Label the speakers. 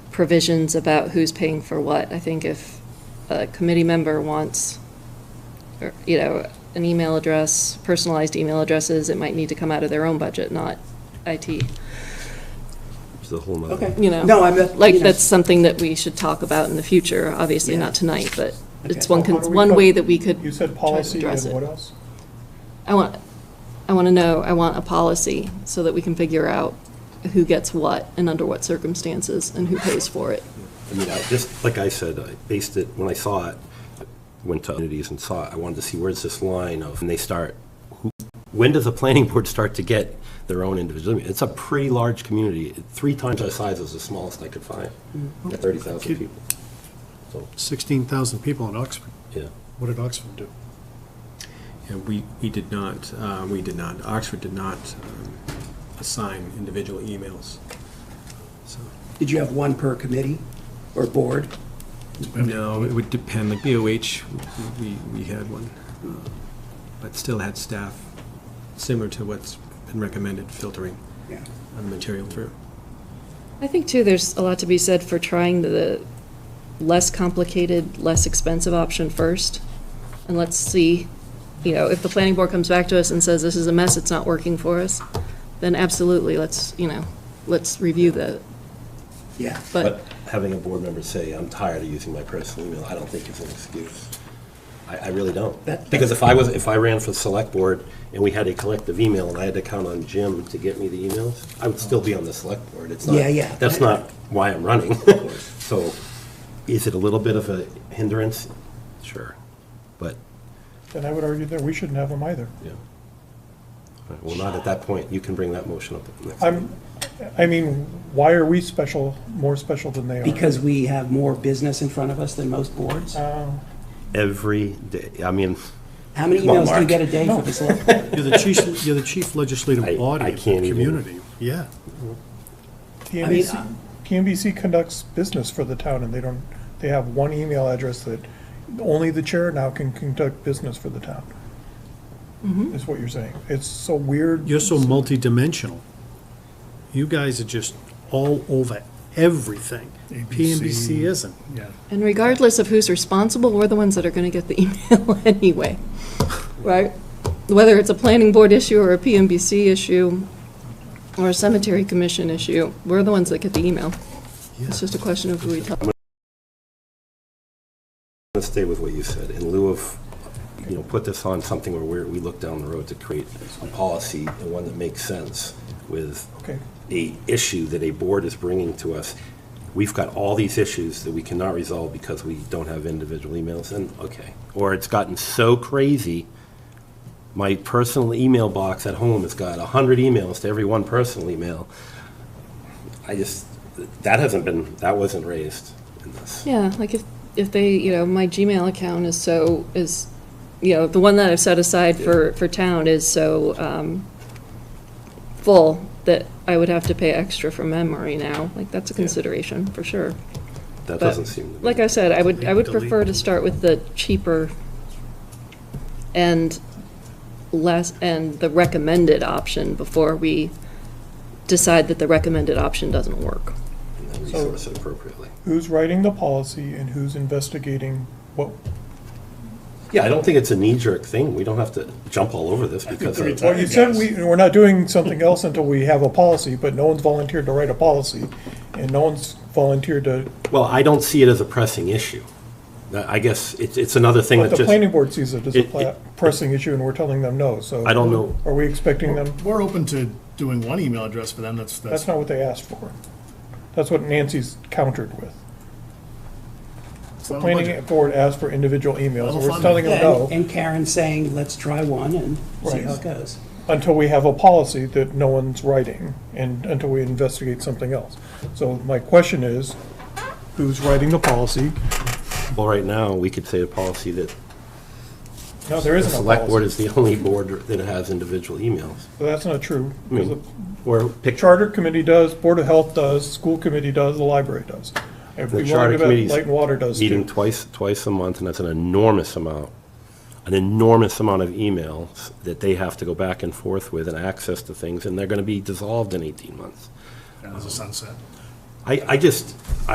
Speaker 1: provisions about who's paying for what. I think if a committee member wants, or, you know, an email address, personalized email addresses, it might need to come out of their own budget, not IT,
Speaker 2: It's a whole nother.
Speaker 3: Okay.
Speaker 1: you know?
Speaker 3: No, I'm not-
Speaker 1: Like,
Speaker 3: you know.
Speaker 1: that's something that we should talk about in the future, obviously
Speaker 3: Yeah.
Speaker 1: not tonight, but it's
Speaker 3: Okay.
Speaker 1: one,
Speaker 4: Well,
Speaker 1: con-
Speaker 4: how do we
Speaker 1: one
Speaker 4: put-
Speaker 1: way that we could.
Speaker 4: You
Speaker 1: try
Speaker 4: said
Speaker 1: to
Speaker 4: policy
Speaker 1: address
Speaker 4: and
Speaker 1: it.
Speaker 4: what else?
Speaker 1: I want, I want to know, I want a policy so that we can figure out who gets what and under what circumstances and who pays for it.
Speaker 2: I mean, I just, like I said, I based it, when I saw it, went to communities and saw it, I wanted to see where's this line of, and they start, who, when does the planning board start to get their own individual? It's a pretty large community, three times our size is the smallest I could find, at 30,000 people. So,
Speaker 5: 16,000 people in Oxford.
Speaker 2: yeah.
Speaker 5: What did Oxford do?
Speaker 6: Yeah, we, we did not, uh, we did not, Oxford did not um, assign individual emails. So,
Speaker 3: Did you have one per committee or board?
Speaker 6: No, it would depend, like BOH, we, we had one, uh, but still had staff similar to what's been recommended filtering
Speaker 3: Yeah.
Speaker 6: on the material through.
Speaker 1: I think too, there's a lot to be said for trying the less complicated, less expensive option first. And let's see, you know, if the planning board comes back to us and says, this is a mess, it's not working for us, then absolutely, let's, you know, let's review the,
Speaker 3: Yeah.
Speaker 1: but,
Speaker 2: But having a board member say, I'm tired of using my personal email, I don't think is an excuse. I, I really don't.
Speaker 3: That-
Speaker 2: Because if I was, if I ran for select board and we had a collective email and I had to count on Jim to get me the emails, I would still be on the select board. It's not.
Speaker 3: Yeah, yeah.
Speaker 2: That's not why I'm running. So is it a little bit of a hindrance? Sure, but,
Speaker 4: Then I would argue that we shouldn't have them either.
Speaker 2: yeah. All right, Well, not at that point. You can bring that motion up at the next.
Speaker 4: I'm, I mean, why are we special, more special than they are?
Speaker 3: Because we have more business in front of us than most boards?
Speaker 2: Every day, I mean,
Speaker 3: How many
Speaker 2: Come on,
Speaker 3: emails do you
Speaker 2: Mark.
Speaker 3: get a day for this? little-
Speaker 5: You're the chief, you're the chief
Speaker 2: I-
Speaker 5: legislative body
Speaker 2: I
Speaker 5: of
Speaker 2: can't
Speaker 5: the
Speaker 2: even-
Speaker 5: community. Yeah.
Speaker 3: I
Speaker 4: TNBC,
Speaker 3: mean,
Speaker 4: TNBC conducts business for the town and they don't, they have one email address that only the chair now can conduct business for the town.
Speaker 1: Mm-hmm.
Speaker 4: Is what you're saying. It's so weird.
Speaker 5: You're so multidimensional. You guys are just all over everything. PNBC isn't.
Speaker 1: and regardless of who's responsible, we're the ones that are gonna get the email anyway. Right? Whether it's a planning board issue or a PMBC issue or a cemetery commission issue, we're the ones that get the email. It's just a question of who we tell.
Speaker 2: Let's stay with what you said. In lieu of, you know, put this on something where we're- we look down the road to create a policy, and one that makes sense with
Speaker 4: Okay.
Speaker 2: a issue that a board is bringing to us. We've got all these issues that we cannot resolve because we don't have individual emails, and, okay. Or it's gotten so crazy, my personal email box at home has got 100 emails to every one personal email. I just, that hasn't been, that wasn't raised in this.
Speaker 1: Yeah, like if, if they, you know, my Gmail account is so, is, you know, the one that I've set aside for, for town is so, um, full that I would have to pay extra from memory now. Like, that's a consideration, for sure. But,
Speaker 2: That doesn't seem to be.
Speaker 1: Like I said, I would, I would
Speaker 5: Delete, delete.
Speaker 1: prefer to start with the cheaper and less, and the recommended option before we decide that the recommended option doesn't work.
Speaker 2: and then resource it appropriately.
Speaker 4: Who's writing the policy and who's investigating what,
Speaker 2: Yeah, I don't think it's a knee-jerk thing. We don't have to jump all over this because.
Speaker 4: Well, you said we, we're not doing something else until we have a policy, but no one's volunteered to write a policy, and no one's volunteered to,
Speaker 2: Well, I don't see it as a pressing issue. I guess it's, it's another thing
Speaker 4: but
Speaker 2: that
Speaker 4: the
Speaker 2: just,
Speaker 4: planning board sees it as a
Speaker 2: It-
Speaker 4: pla-
Speaker 2: it-
Speaker 4: pressing issue, and we're telling them no, so.
Speaker 2: I don't know.
Speaker 4: Are we expecting them,
Speaker 5: We're open to doing one email address for them. That's,
Speaker 4: that's not what they asked for. That's what Nancy's countered with. The planning board asked for individual emails, and we're
Speaker 5: Level
Speaker 4: telling them
Speaker 3: Yeah,
Speaker 4: no,
Speaker 3: And Karen saying, let's try one and see how
Speaker 4: Right.
Speaker 3: it goes.
Speaker 4: until we have a policy that no one's writing, and until we investigate something else. So my question is, who's writing the policy?
Speaker 2: well, right now, we could say a policy that
Speaker 4: No, there
Speaker 2: the
Speaker 4: isn't a policy.
Speaker 2: select board is the only board that has individual emails.
Speaker 4: Well, That's not true.
Speaker 2: I
Speaker 4: because
Speaker 2: mean,
Speaker 4: The
Speaker 2: or picture,
Speaker 4: charter committee does, board of health does, school committee does, the library does. If
Speaker 2: the
Speaker 4: we wanted
Speaker 2: charter
Speaker 4: to,
Speaker 2: committee's.
Speaker 4: light and water does
Speaker 2: Meeting
Speaker 4: too.
Speaker 2: twice, twice a month, and that's an enormous amount, an enormous amount of emails that they have to go back and forth with and access to things, and they're gonna be dissolved in eighteen months.
Speaker 5: As a sunset.
Speaker 2: I, I just,